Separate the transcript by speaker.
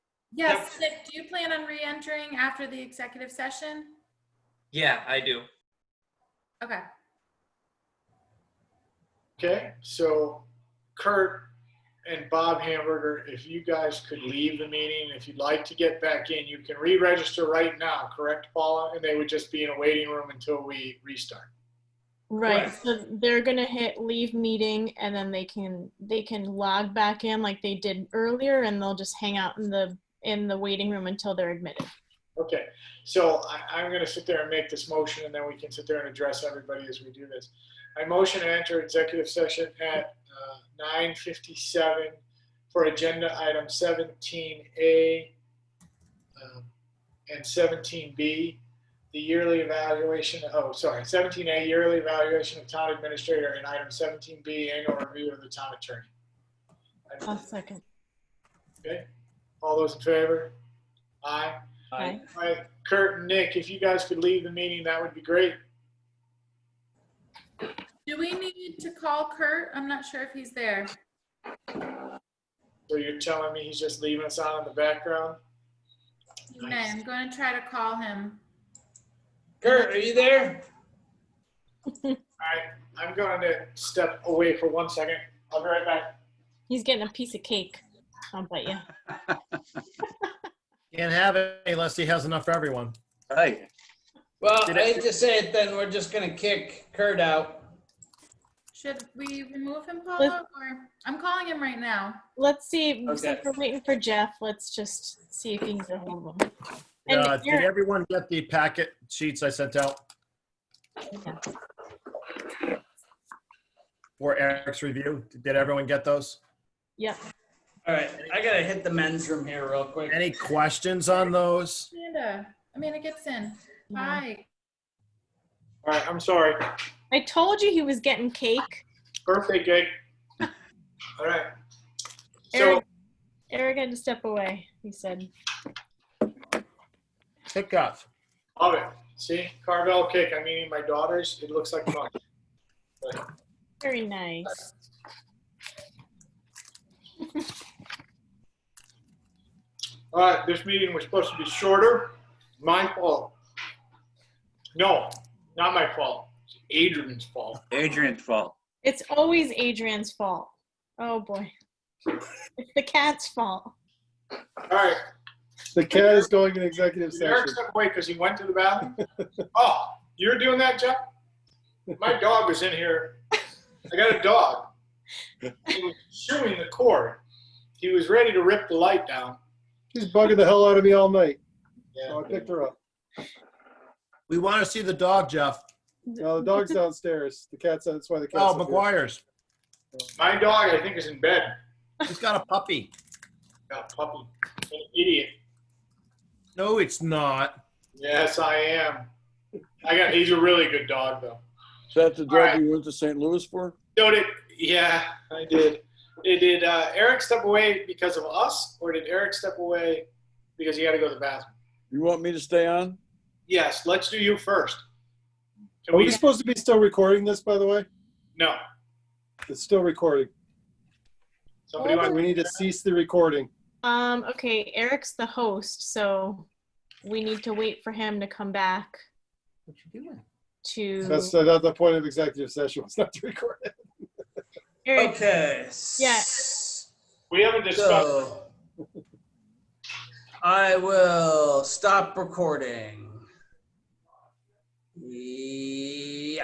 Speaker 1: Yes, Nick, do you plan on re-entering after the executive session?
Speaker 2: Yeah, I do.
Speaker 1: Okay,
Speaker 3: Okay, so Kurt and Bob Hamburger, if you guys could leave the meeting, if you'd like to get back in, you can re-register right now, correct, Paula? And they would just be in a waiting room until we restart.
Speaker 4: Right,
Speaker 2: Correct.
Speaker 4: so they're gonna hit leave meeting and then they can, they can log back in like they did earlier and they'll just hang out in the, in the waiting room until they're admitted.
Speaker 3: Okay, so I, I'm gonna sit there and make this motion, and then we can sit there and address everybody as we do this. I motion to enter executive session at uh, nine fifty-seven for agenda item seventeen A um, and seventeen B, the yearly evaluation, oh, sorry, seventeen A, yearly evaluation of town administrator, and item seventeen B, annual review of the town attorney.
Speaker 4: One second.
Speaker 3: All those in favor? Aye.
Speaker 4: Bye.
Speaker 3: All right, Kurt and Nick, if you guys could leave the meeting, that would be great.
Speaker 1: do we need to call Kurt? I'm not sure if he's there.
Speaker 3: So you're telling me he's just leaving us out in the background?
Speaker 1: He may. I'm going to try to call him.
Speaker 5: Kurt, are you there?
Speaker 3: All right, I'm going to step away for one second. I'll be right back.
Speaker 4: He's getting a piece of cake. I'll bet you.
Speaker 6: Can't have it unless he has enough for everyone.
Speaker 7: Hey,
Speaker 5: Well,
Speaker 7: Did
Speaker 5: I
Speaker 7: I-
Speaker 5: hate to say it, then we're just gonna kick Kurt out.
Speaker 1: Should we remove him, Paula? Or, I'm calling him right now.
Speaker 4: Let's see,
Speaker 5: Okay.
Speaker 4: we're waiting for Jeff. Let's just see if he can get hold of him. And
Speaker 6: Uh, Did
Speaker 4: Eric-
Speaker 6: everyone get the packet sheets I sent out? For Eric's review? Did everyone get those?
Speaker 4: Yep.
Speaker 5: All right, I gotta hit the men's room here real quick.
Speaker 6: Any questions on those?
Speaker 1: Amanda, Amanda Gibson, hi.
Speaker 3: All right, I'm sorry.
Speaker 4: I told you he was getting cake.
Speaker 3: Birthday cake. All right. So,
Speaker 4: Eric, Eric had to step away, he said.
Speaker 6: Hiccup.
Speaker 3: love it. See, Carvel cake. I'm eating my daughter's. It looks like fun.
Speaker 4: Very nice.
Speaker 3: All right, this meeting was supposed to be shorter. My fault. No, not my fault. It's Adrian's fault.
Speaker 7: Adrian's fault.
Speaker 4: It's always Adrian's fault. Oh, boy. It's the cat's fault.
Speaker 3: All right,
Speaker 8: The cat is going in executive
Speaker 3: Did Eric
Speaker 8: session.
Speaker 3: step away because he went to the bathroom? oh, you're doing that, Jeff? My dog was in here. I got a dog. He was chewing the cord. He was ready to rip the light down.
Speaker 8: She's bugging the hell out of me all night.
Speaker 3: Yeah.
Speaker 8: So I picked her up.
Speaker 6: We want to see the dog, Jeff.
Speaker 8: No, the dog's downstairs. The cat's that's why the cat's.
Speaker 6: Oh,
Speaker 8: up here.
Speaker 6: McGuire's.
Speaker 3: My dog, I think, is in bed.
Speaker 6: He's got a puppy.
Speaker 3: Got a puppy. An idiot.
Speaker 6: No, it's not.
Speaker 3: Yes, I am. I got. He's a really good dog, though.
Speaker 9: So that's the
Speaker 3: All right.
Speaker 9: drug you went to St. Louis for?
Speaker 3: So did yeah, I did. It did uh, Eric step away because of us, or did Eric step away because he had to go to the bathroom?
Speaker 9: You want me to stay on?
Speaker 3: Yes, let's do you first. Can
Speaker 8: Are we
Speaker 3: we?
Speaker 8: supposed to be still recording this, by the way?
Speaker 3: No.
Speaker 8: It's still recording.
Speaker 3: Somebody
Speaker 4: Well,
Speaker 3: want
Speaker 8: We need to cease the recording.
Speaker 4: Um, okay, Eric's the host, so we need to wait for him to come back
Speaker 6: What you doing?
Speaker 4: to.
Speaker 8: That's not the point of executive session. It's not to record it.
Speaker 4: Eric,
Speaker 5: Okay.
Speaker 4: Yeah.
Speaker 3: We haven't discussed.
Speaker 5: So, I will stop recording.